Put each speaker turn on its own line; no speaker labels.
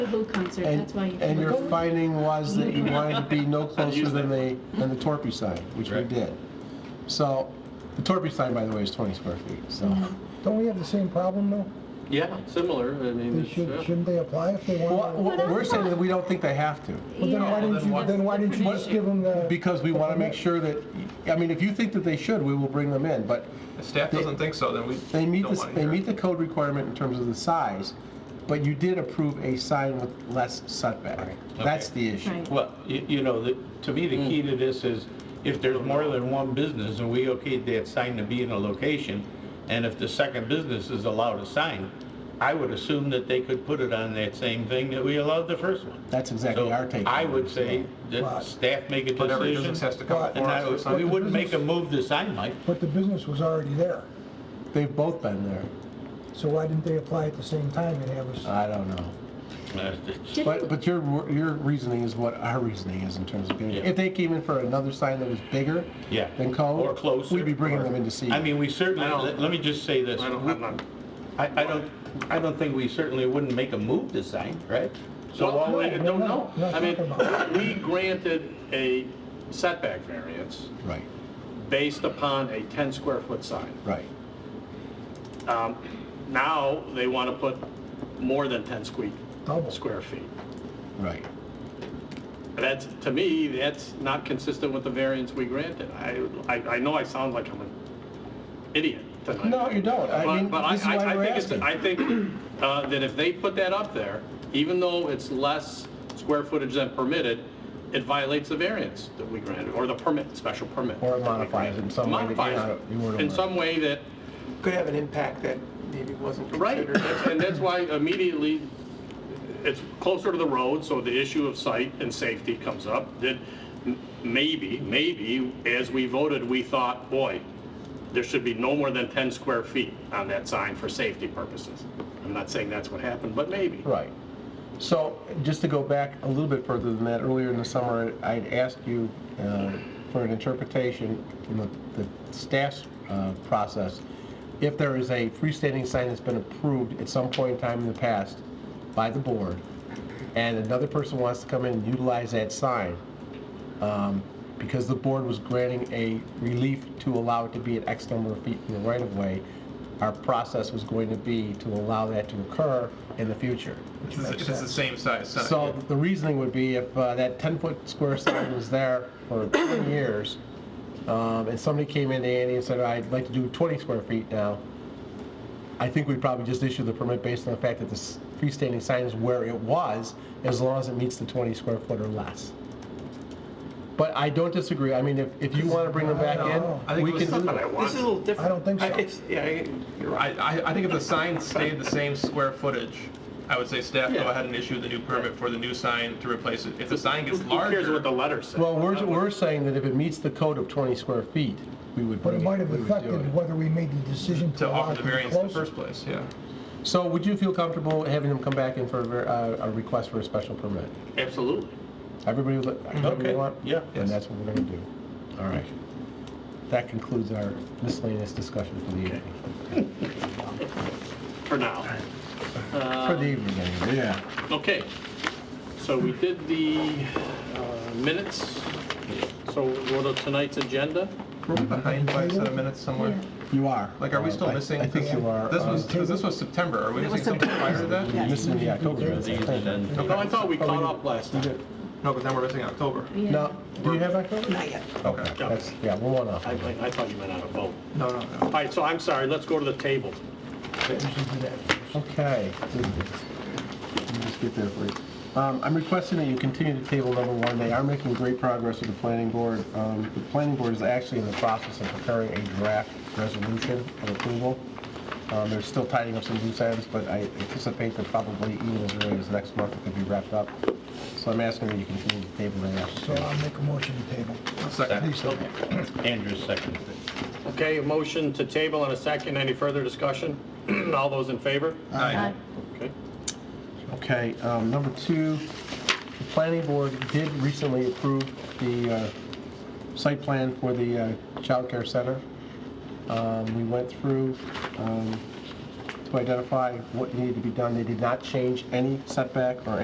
The Who concert,
And-
that's why you.
And your finding was that you wanted to be no closer than the, than the Torpy sign, which we
Right.
did. So, the Torpy sign, by the way, is 20 square feet, so.
Mm-hmm.
Don't we have the same problem though?
Yeah, similar, I mean,
They
it's, uh,
should,
yeah.
shouldn't they apply if they
Well,
want?
w- We're saying that we don't think they have to,
Well, then why didn't you, then why didn't you just give them the?
because we want to make sure that, I mean, if you think that they should, we will bring them in, but
If staff doesn't think so, then we
they meet,
don't
the-
want to
they
hear
meet
it.
the code requirement in terms of the size, but you did approve a sign with less setback. That's the issue.
Right.
Well, you you know, the- to me, the
Mm.
key to this is if there's more than one business and we okayed that sign to be in a location, and if the second business is allowed a sign, I would assume that they could put it on that same thing that we allowed the first one.
That's exactly our
So
take.
I would say that
Right.
staff make a
But every
decision.
business has to come
Right.
And
before us.
I
with
would- we
something.
wouldn't make a move to sign, Mike.
But the business was already there,
They've both been there.
so why didn't they apply at the same time and have us?
I don't know.
Uh,
But, but your, your reasoning is what our reasoning is in terms of getting,
Yeah.
if they came in for another sign that was bigger
Yeah.
than code.
Or closer.
We'd be bringing
or-
them in to see.
I mean, we certainly,
I don't-
let let me just say this.
I don't, I'm not,
I, I don't, I don't think we certainly wouldn't make a move to sign, right? So while we,
I don't know.
No, no,
I mean,
talk about
we granted a setback variance
Right,
based upon a 10 square foot sign.
right.
Um, Now, they want to put more than 10 squeak,
Double.
square feet.
Right.
That's, to me, that's not consistent with the variance we granted. I, I I know I sound like I'm an idiot tonight.
No, you don't. I
But-
mean,
but
this is
I- I-
why
I
we're
think it's-
asking.
I think uh, that if they put that up there, even though it's less square footage than permitted, it violates the variance that we granted, or the permit, special permit.
Or it
that we
modifies it in some way that you're
Modifies
not-
it
you weren't aware
in
of.
some way that,
could have an impact that maybe wasn't
right,
considered.
that's- and that's why immediately, it's closer to the road, so the issue of sight and safety comes up, that m- maybe, maybe, as we voted, we thought, boy, there should be no more than 10 square feet on that sign for safety purposes. I'm not saying that's what happened, but maybe.
Right. So just to go back a little bit further than that, earlier in the summer, I'd asked you uh, for an interpretation from the the staff's uh, process. If there is a freestanding sign that's been approved at some point in time in the past by the board, and another person wants to come in and utilize that sign, um, because the board was granting a relief to allow it to be at X number of feet from the right-of-way, our process was going to be to allow that to occur in the future.
It's the- It's the same size sign.
So the reasoning would be if uh, that 10-foot square sign was there for 20 years, um, and somebody came in to Andy and said, I'd like to do 20 square feet now, I think we'd probably just issue the permit based on the fact that the s- freestanding sign is where it was, as long as it meets the 20 square foot or less. But I don't disagree. I mean, if, if you want to bring them back
I
in,
think
we
it was
can do
something I
This
that.
is a
wanted.
little different.
I don't think so.
It's, yeah, I- you're right.
I, I, I think if the sign stayed the same square footage, I would say staff go
Yeah.
ahead and issue the new permit for the new sign to replace it. If the sign gets
Who cares what the
larger,
letter says?
Well, we're, we're saying that if it meets the code of 20 square feet, we would
But
bring
it
it.
might have
we would do
affected
it.
whether we made the decision to
to
allow
offer
it
the
to be
variance in the
closer.
first place, yeah.
So would you feel comfortable having them come back in for a ver- uh, a request for a special permit?
Absolutely.
Everybody, li- everybody
Okay,
want?
yeah.
And that's what we're going to do. All right. That concludes our miscellaneous discussion for the evening.
For now.
For
Um,
the evening, anyway. Yeah.
Okay. So we did the uh, minutes. So what are tonight's agenda?
We're behind by a set of minutes somewhere.
You are.
Like, are we still
Uh, I-
missing?
I think you are.
This
uh,
was, 'cause this was September. Are we missing something prior to that?
Missing the October. minutes, I think.
No, I thought we caught up last
You
time.
did.
No, but then we're missing October.
No, do you have October?
Not yet.
Okay,
Yeah.
that's, yeah, we're one off.
I, I I thought you meant out of vote.
No, no,
All
no.
right, so I'm sorry, let's go to the table.
Okay. Let me just get there for you. Um, I'm requesting that you continue to table number one. They are making great progress with the planning board. Um, The planning board is actually in the process of preparing a draft resolution of approval. Um, They're still tidying up some loose ends, but I anticipate that probably even as early as next month it could be wrapped up. So I'm asking that you continue to table that.
So I'll make a motion to table.
Second.
Andrew second.
Okay, a motion to table and a second. Any further discussion? All those in favor?
Aye.
Uh,
Okay.
Okay, um, number two, the planning board did recently approve the uh, site plan for the uh, childcare center. Um, We went through um, to identify what needed to be done. They did not change any setback or